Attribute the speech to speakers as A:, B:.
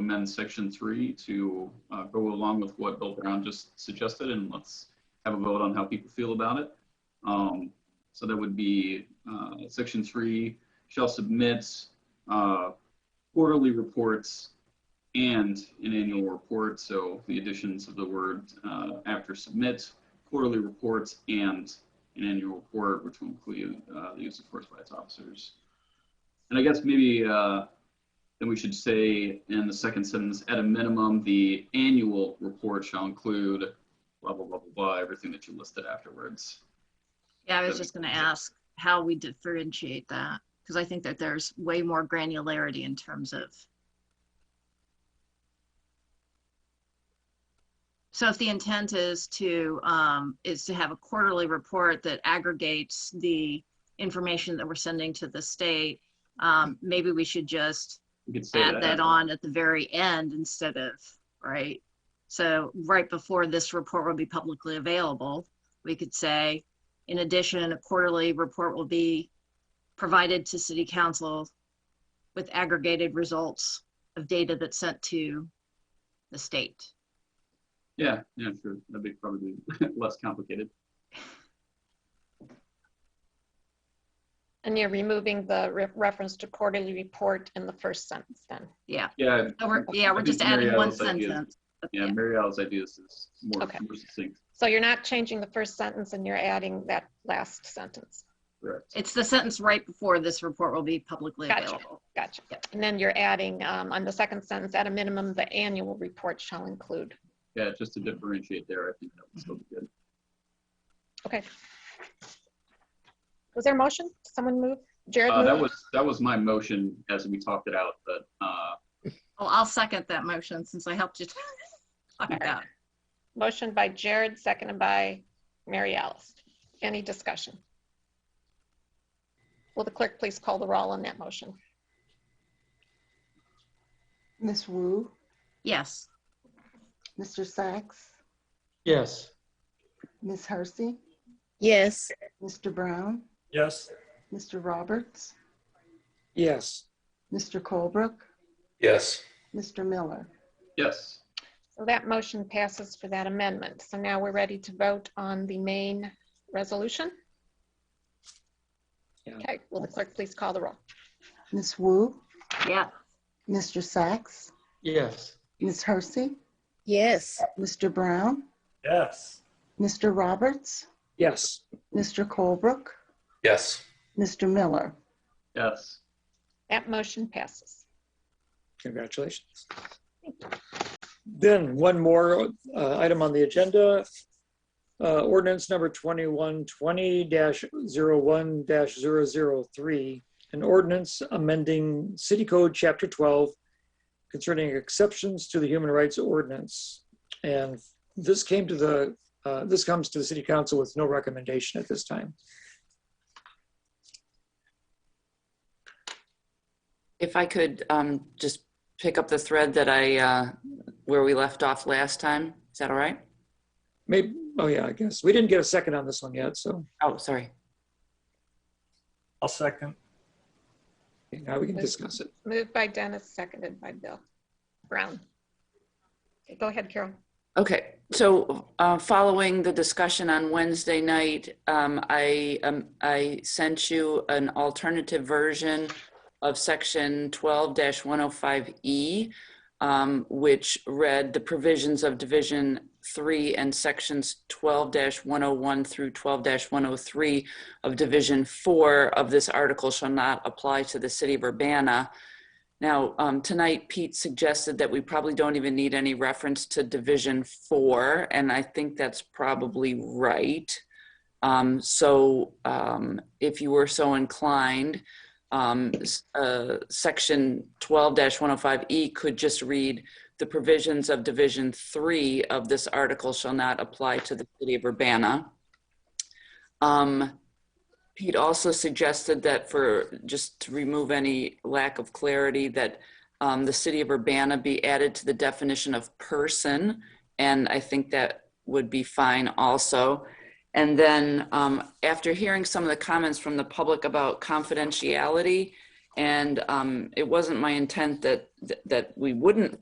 A: amend section three to uh, go along with what Bill Brown just suggested, and let's have a vote on how people feel about it. Um, So that would be uh, section three shall submit uh, quarterly reports and an annual report. So the additions of the word uh, after submit, quarterly reports and an annual report, which will include uh, the use of force by its officers. And I guess maybe uh, then we should say in the second sentence, at a minimum, the annual report shall include blah, blah, blah, blah, blah, everything that you listed afterwards.
B: Yeah, I was just gonna ask how we differentiate that, because I think that there's way more granularity in terms of. So if the intent is to, um, is to have a quarterly report that aggregates the information that we're sending to the state, um, maybe we should just
A: We could say
B: add that on at the very end instead of, right? So right before this report will be publicly available, we could say, in addition, a quarterly report will be provided to city council with aggregated results of data that's sent to the state.
A: Yeah, yeah, sure. That'd be probably less complicated.
C: And you're removing the re- reference to quarterly report in the first sentence then.
B: Yeah,
A: Yeah,
B: so we're, yeah, we're
A: I
B: just
A: think Mary
B: adding one
A: Alice ideas-
B: sentence.
A: yeah, Mary Alice ideas is more
C: Okay.
A: more succinct.
C: So you're not changing the first sentence and you're adding that last sentence.
A: Correct.
B: It's the sentence right before this report will be publicly
C: Gotcha.
B: available.
C: Gotcha. And then you're adding um, on the second sentence, at a minimum, the annual report shall include.
A: Yeah, just to differentiate there, I think that would still be good.
C: Was there a motion? Someone move? Jared
A: Uh, that
C: moved?
A: was, that was my motion as we talked it out, but, uh,
B: Well, I'll second that motion since I helped you talk it out.
C: Motion by Jared, seconded by Mary Alice. Any discussion? Will the clerk please call the roll on that motion?
D: Miss Wu,
B: Yes.
D: Mr. Sachs,
E: Yes.
D: Miss Hersey,
F: Yes,
D: Mr. Brown,
E: Yes.
D: Mr. Roberts,
E: Yes.
D: Mr. Colebrook,
E: Yes.
D: Mr. Miller.
A: yes,
C: So that motion passes for that amendment. So now we're ready to vote on the main resolution.
E: Yeah.
C: Okay, will the clerk please call the roll?
D: Miss Wu,
B: Yeah.
D: Mr. Sachs,
E: Yes.
D: Miss Hersey,
F: yes,
D: Mr. Brown,
E: Yes.
D: Mr. Roberts,
E: Yes.
D: Mr. Colebrook,
E: Yes.
D: Mr. Miller.
A: yes.
C: That motion passes.
E: Congratulations. Then one more uh, item on the agenda. Uh, Ordinance number 2120-01-003, an ordinance amending City Code Chapter 12 concerning exceptions to the human rights ordinance. And this came to the, uh, this comes to the City Council with no recommendation at this time.
G: If I could um, just pick up the thread that I, uh, where we left off last time, is that all right?
E: Maybe, oh yeah, I guess. We didn't get a second on this one yet, so
G: Oh, sorry.
H: I'll second.
E: okay, now we can discuss it.
C: Moved by Dennis, seconded by Bill Brown. Okay, Go ahead, Carol.
G: Okay, so uh, following the discussion on Wednesday night, um, I, um, I sent you an alternative version of section 12-105E, um, which read the provisions of Division 3 and sections 12-101 through 12-103 of Division 4 of this article shall not apply to the city of Urbana. Now, um, tonight Pete suggested that we probably don't even need any reference to Division Four, and I think that's probably right. Um, so, um, if you were so inclined, um, s- uh, Section twelve one hundred five E could just read the provisions of Division Three of this article shall not apply to the city of Urbana. Um, Pete also suggested that for, just to remove any lack of clarity, that um, the city of Urbana be added to the definition of person. And I think that would be fine also. And then um, after hearing some of the comments from the public about confidentiality, and um, it wasn't my intent that, that we wouldn't